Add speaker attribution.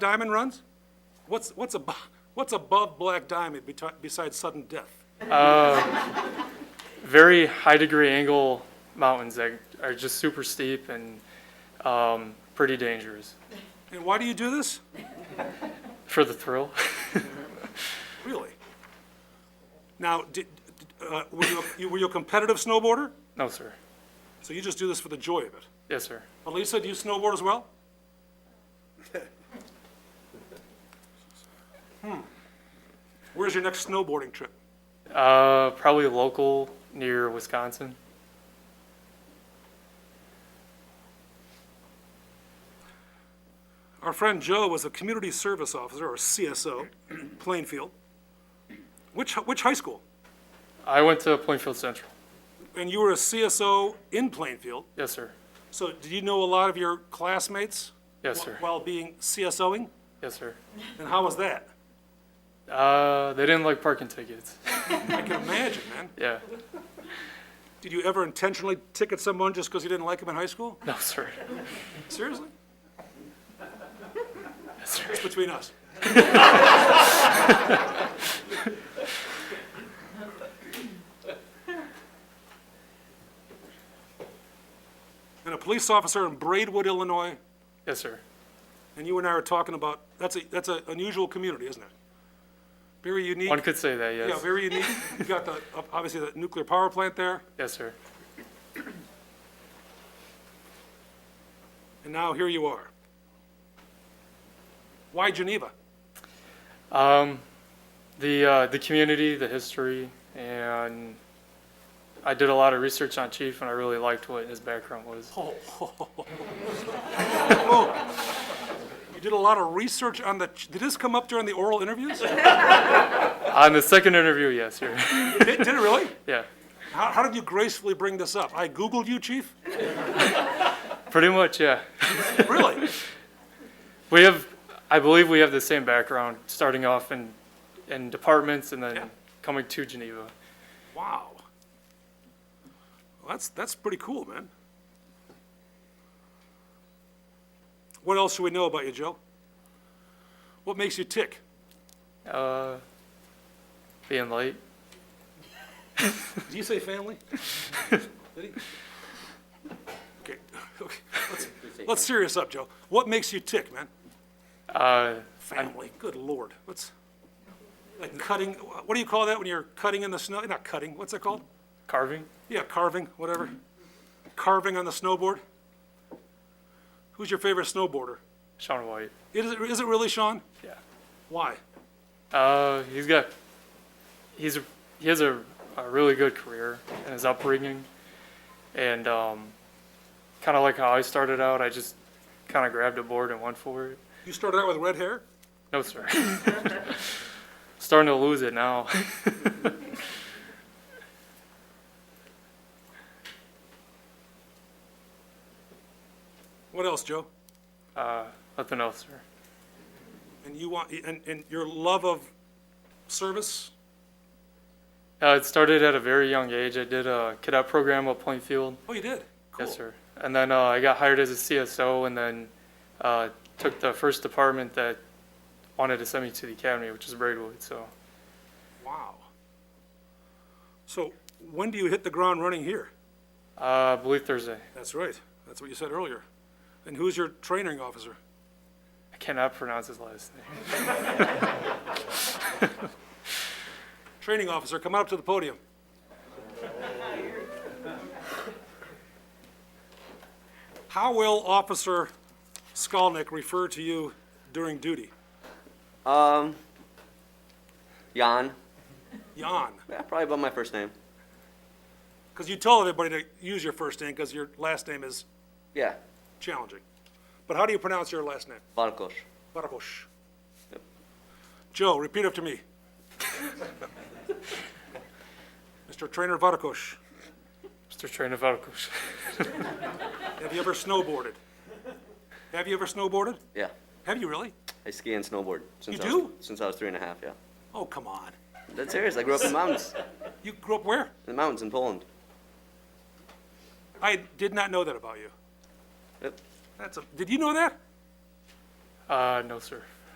Speaker 1: diamond runs? What's, what's above, what's above black diamond beti- besides sudden death?
Speaker 2: very high degree angle mountains that are just super steep and um, pretty dangerous
Speaker 1: And why do you do this?
Speaker 2: for the thrill.
Speaker 1: Really? Now, did, uh, were you, a- you- were you a competitive snowboarder?
Speaker 2: no, sir.
Speaker 1: So you just do this for the joy of it.
Speaker 2: Yes, sir.
Speaker 1: But Lisa, do you snowboard as well? Hmm. Where's your next snowboarding trip?
Speaker 2: Uh, probably local near Wisconsin.
Speaker 1: Our friend Joe was a community service officer, or CSO, Plainfield. Which, which high school?
Speaker 2: I went to Plainfield Central.
Speaker 1: And you were a CSO in Plainfield,
Speaker 2: Yes, sir.
Speaker 1: so did you know a lot of your classmates?
Speaker 2: Yes, sir.
Speaker 1: While being CSOing?
Speaker 2: Yes, sir.
Speaker 1: And how was that?
Speaker 2: Uh, they didn't like parking tickets.
Speaker 1: I can imagine, man.
Speaker 2: yeah.
Speaker 1: Did you ever intentionally ticket someone just because you didn't like them in high school?
Speaker 2: No, sir.
Speaker 1: Seriously?
Speaker 2: Yes, sir.
Speaker 1: Between us. And a police officer in Braidwood, Illinois,
Speaker 2: Yes, sir.
Speaker 1: and you and I are talking about, that's a, that's an unusual community, isn't it? Very unique.
Speaker 2: One could say that. Yes.
Speaker 1: Yeah, very unique. You've got the, obviously, the nuclear power plant there,
Speaker 2: yes, sir.
Speaker 1: and now here you are. Why Geneva?
Speaker 2: Um, the uh, the community, the history, and I did a lot of research on Chief, and I really liked what his background was.
Speaker 1: You did a lot of research on the, did this come up during the oral interviews? Did
Speaker 2: On the second interview, yes, sir.
Speaker 1: did it really?
Speaker 2: yeah,
Speaker 1: How, how did you gracefully bring this up? I Googled you, chief?
Speaker 2: pretty much, yeah.
Speaker 1: Really?
Speaker 2: We have, I believe, we have the same background, starting off in in departments, and then
Speaker 1: Yeah.
Speaker 2: coming to Geneva.
Speaker 1: Wow. Well, that's, that's pretty cool, man. What else should we know about you, Joe? What makes you tick?
Speaker 2: Uh, being late,
Speaker 1: Did you say family? Did he? Okay, okay, let's, let's serious up, Joe. What makes you tick, man?
Speaker 2: uh,
Speaker 1: Family, good lord, what's, like cutting, what do you call that when you're cutting in the snow? Not cutting, what's that called?
Speaker 2: carving.
Speaker 1: Yeah, carving, whatever. Carving on the snowboard. Who's your favorite snowboarder?
Speaker 2: Sean White.
Speaker 1: Is it, is it really Sean?
Speaker 2: Yeah.
Speaker 1: Why?
Speaker 2: Uh, he's got, he's a, he has a, a really good career in his upbringing, and um, kind of like how I started out, I just kind of grabbed a board and went for it.
Speaker 1: You started out with red hair?
Speaker 2: No, sir. Starting to lose it now.
Speaker 1: What else, Joe?
Speaker 2: Uh, Nothing else, sir.
Speaker 1: And you want, and, and your love of service?
Speaker 2: Uh, it started at a very young age. I did a cadet program at Plainfield.
Speaker 1: Oh, you did? Cool.
Speaker 2: Yes, sir. And then uh, I got hired as a CSO, and then uh, took the first department that wanted to send me to the academy, which is Braidwood. So.
Speaker 1: Wow. So when do you hit the ground running here?
Speaker 2: Uh, I believe Thursday.
Speaker 1: That's right. That's what you said earlier. And who's your training officer?
Speaker 2: I cannot pronounce his last name.
Speaker 1: Training officer, come up to the podium. How will Officer Skolnick refer to you during duty?
Speaker 3: Um, Jan.
Speaker 1: Jan,
Speaker 3: Yeah, probably about my first name.
Speaker 1: because you tell everybody to use your first name because your last name is
Speaker 3: Yeah,
Speaker 1: challenging. But how do you pronounce your last name?
Speaker 3: Barkos.
Speaker 1: Barbosh. Joe, repeat after me. Mr. Trainer Varkosh,
Speaker 2: Mr. Train of Arcos.
Speaker 1: have you ever snowboarded? Have you ever snowboarded?
Speaker 3: Yeah,
Speaker 1: Have you really?
Speaker 3: I ski and snowboard. Since
Speaker 1: You
Speaker 3: I was,
Speaker 1: do?
Speaker 3: Since I was three and a half, yeah.
Speaker 1: Oh, come on.
Speaker 3: That's serious. I grew up in the mountains.
Speaker 1: You grew up where?
Speaker 3: In the mountains in Poland.
Speaker 1: I did not know that about you.
Speaker 3: Yep.
Speaker 1: That's a, did you know that?
Speaker 2: Uh, no, sir.